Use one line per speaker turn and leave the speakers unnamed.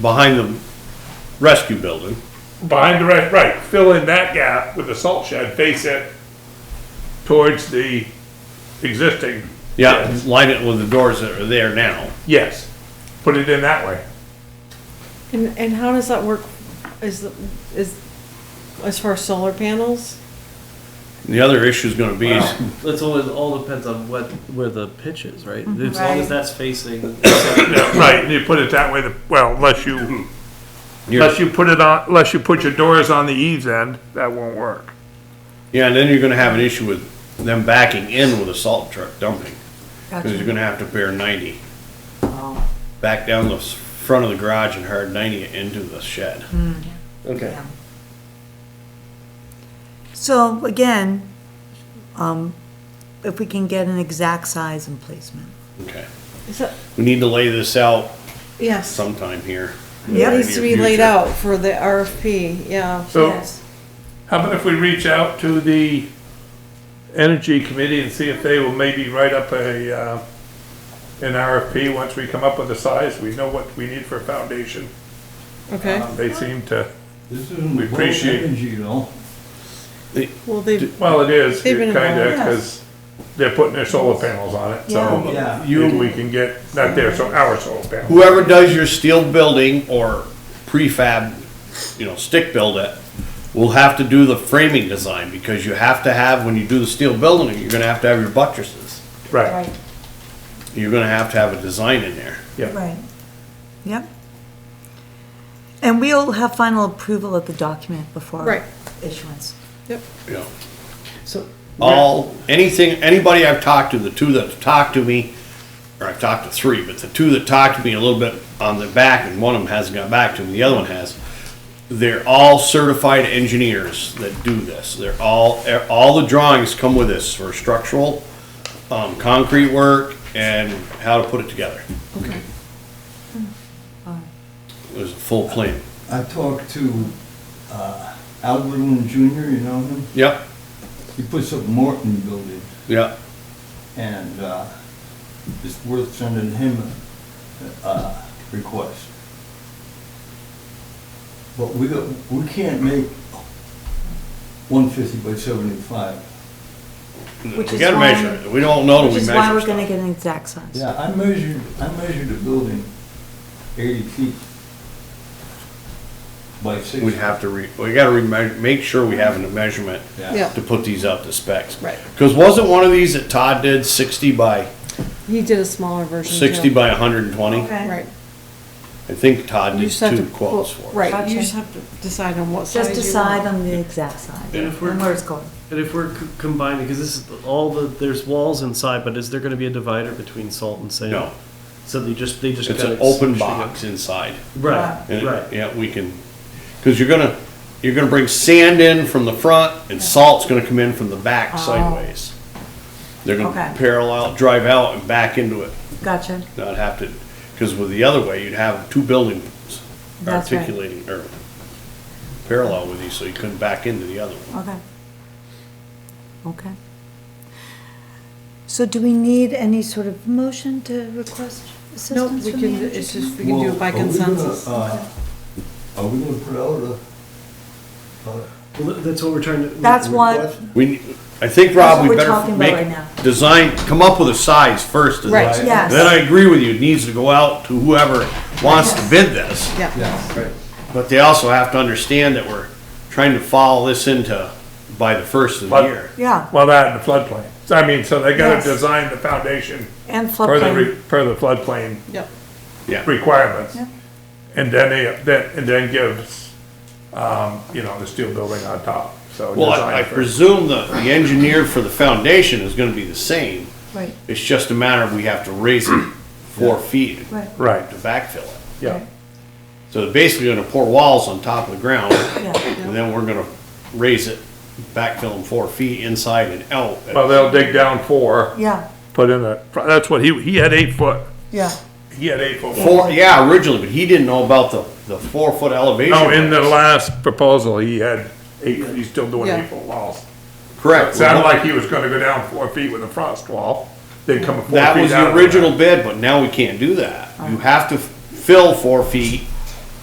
behind the rescue building.
Behind the right, right, fill in that gap with a salt shed, face it towards the existing.
Yeah, line it with the doors that are there now.
Yes, put it in that way.
And, and how does that work, is, the- is, as far as solar panels?
The other issue is gonna be, is
That's always all depends on what where the pitch is, right? As long as
Mm-hmm. Right.
that's facing.
Yeah, right, you put it that way, the- well, unless you,
you're,
unless you put it on, unless you put your doors on the eaves end, that won't work.
yeah, and then you're gonna have an issue with them backing in with a salt truck dumping. Cause you're
Gotcha.
gonna have to bear ninety,
Oh,
back down the s- front of the garage and hard ninety it into the shed.
Okay.
yeah. So again, um, if we can get an exact size and placement.
Okay,
Is that,
we need to lay this out
yes, it
sometime here.
Yeah.
needs to be laid out for the RFP, yeah.
So how about if we reach out to the energy committee and see if they will maybe write up a, uh, an RFP once we come up with a size, we know what we need for a foundation.
Okay,
Um, They seem to,
This isn't
We
we
appreciate-
appreciate energy, though.
well, they,
well, it is,
They've been
kinda,
involved.
cause they're putting their solar panels on it, so.
Yeah.
You, we can get, not their, so our solar panels.
whoever does your steel building or prefab, you know, stick build it, will have to do the framing design, because you have to have, when you do the steel building, you're gonna have to have your buttresses.
Right,
You're gonna have to have a design in there.
yeah,
Right. Yep. And we'll have final approval of the document
Right.
before issuance.
yep,
you know.
So
All, anything, anybody I've talked to, the two that have talked to me, or I've talked to three, but the two that talked to me a little bit on the back, and one of them hasn't got back to me, the other one has. They're all certified engineers that do this. They're all, e, all the drawings come with this for structural, um, concrete work and how to put it together.
okay.
Hmm.
There's a full plan.
I talked to uh, Albert Lynn Jr., you know him?
Yep,
He puts up Morton Building,
yep.
and uh, it's worth sending him a uh, request. But we, don't- we can't make 150 by 75.
We
Which is
gotta
why-
measure it. We don't know till
Which
we
is
measure
why we're
stuff.
gonna get an exact size.
Yeah, I measured, I measured a building 80 feet by 60.
We have to re, we gotta re, make sure we have a measurement
Yeah.
to put these up to specs.
Right.
Because wasn't one of these that Todd did sixty by,
He did a smaller version too.
sixty by hundred and twenty?
Okay.
Right.
I think Todd
You
did
just have to.
two quotes for
well,
us.
Right, you
Gotcha.
just have to decide on what size
Just
you
decide
want.
on the exact size
And
and
if we're-
where it's going.
and if we're c- combining, because this is all the there's walls inside, but is there going to be a divider between salt and sand?
No,
So they just they just
it's
gotta
an open
squish
box inside.
together. Right.
And,
Right.
yeah, we can, because you're gonna, you're gonna bring sand in from the front and salt's gonna come in from the
Oh.
back sideways. They're
Okay.
gonna parallel, drive out and back into it,
Gotcha.
not have to, because with the other way, you'd have two buildings
That's right.
articulating, or parallel with you, so you couldn't back into the other one.
Okay. Okay. So do we need any sort of motion to request
Nope,
assistance
we
from the
can,
energy?
it's just, we
committee?
can do it
Well,
by
are we gonna,
consensus.
uh, Are we gonna put out a, a
Well, th- that's what we're trying to.
That's
what.
what-
We, I think,
That's
Rob,
what
we
we're talking
better
about right now.
make, design, come up with a size first. and
Right.
then-
Yes.
Then I agree with you, it needs to go out to whoever wants to bid this.
Yeah,
But they also have to understand that we're trying to follow this into by the first of the
But-
year.
Yeah,
well, that and the floodplain, So, I mean, so they gotta
Yes.
design the foundation
and
per the,
floodplain.
re- per the floodplain
yep,
Yeah,
requirements.
Yeah.
And then they, then, and then gives, um, you know, the steel building on top, so.
well,
design
I I
for-
presume the, the engineer for the foundation is gonna be the same.
Right,
It's just a matter of we have to raise it four feet
right,
Right,
to backfill it.
yeah,
So they're basically gonna pour walls on top of the ground,
yeah,
and then we're gonna raise it, backfill them four feet inside and out.
well, they'll dig down four,
yeah,
put in a, that's what he, he had eight foot,
yeah.
he had eight foot.
Four, yeah, originally, but he didn't know about the, the four foot elevation.
No, in the
raise.
last proposal, he had eight, he's still doing eight foot walls.
Correct.
Sounded like he was gonna go down four feet with a frost wall, then come four feet out.
That was the
of it.
Uh-huh.
original bid, but now we can't do that. You have to fill four feet